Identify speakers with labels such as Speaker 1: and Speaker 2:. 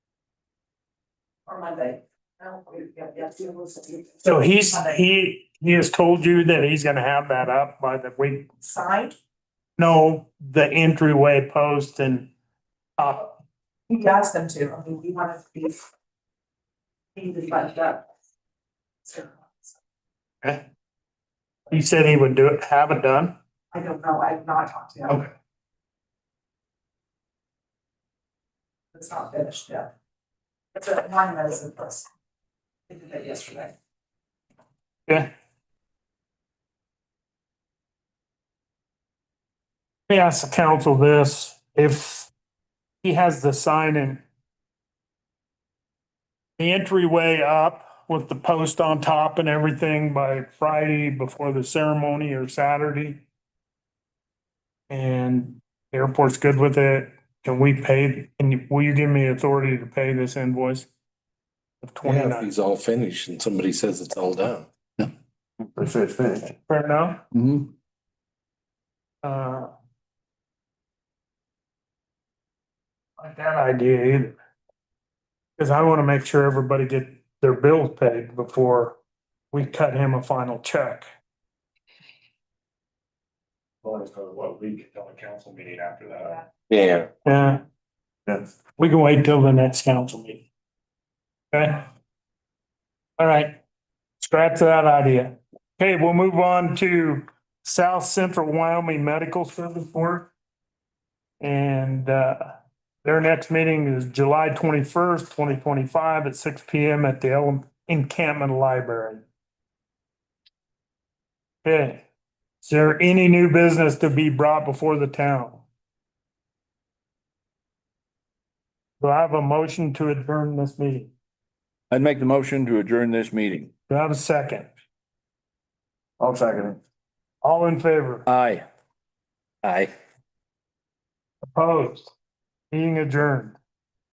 Speaker 1: or Monday. I don't, we, yeah, yeah, it was
Speaker 2: So he's, he, he has told you that he's gonna have that up by the week,
Speaker 1: signed.
Speaker 2: no, the entryway post and uh, up.
Speaker 1: We asked them to, I mean, we wanted to be. Be the budget up. So,
Speaker 2: He said he would do it, have it done.
Speaker 1: I don't know, I've not talked to him.
Speaker 2: Okay.
Speaker 1: It's not finished yet. It's a line that is in place. They did that yesterday.
Speaker 2: Let me ask the council this, if he has the sign in the entryway up with the post on top and everything by Friday before the ceremony or Saturday. And the airport's good with it, can we pay, can you, will you give me authority to pay this invoice? Of twenty
Speaker 3: Yeah, if
Speaker 2: nine,
Speaker 3: he's all finished and somebody says it's all done.
Speaker 4: They say it's finished.
Speaker 2: fair enough?
Speaker 4: Mm-hmm.
Speaker 2: Uh. Like that idea either. Cause I wanna make sure everybody get their bills paid before we cut him a final check.
Speaker 5: Well, it's probably what we could tell the council meeting after that.
Speaker 3: Yeah.
Speaker 2: Yeah,
Speaker 4: Yes.
Speaker 2: we can wait till the next council meeting. Okay? All right, scratch that idea. Okay, we'll move on to South Central Wyoming Medical Service Board. And uh, their next meeting is July twenty-first, twenty twenty-five at six P M at the El- Encampment Library. Okay, is there any new business to be brought before the town? Do I have a motion to adjourn this meeting?
Speaker 4: I'd make the motion to adjourn this meeting.
Speaker 2: Do I have a second?
Speaker 4: I'll second it.
Speaker 2: All in favor?
Speaker 4: Aye. Aye.
Speaker 2: Opposed? Being adjourned.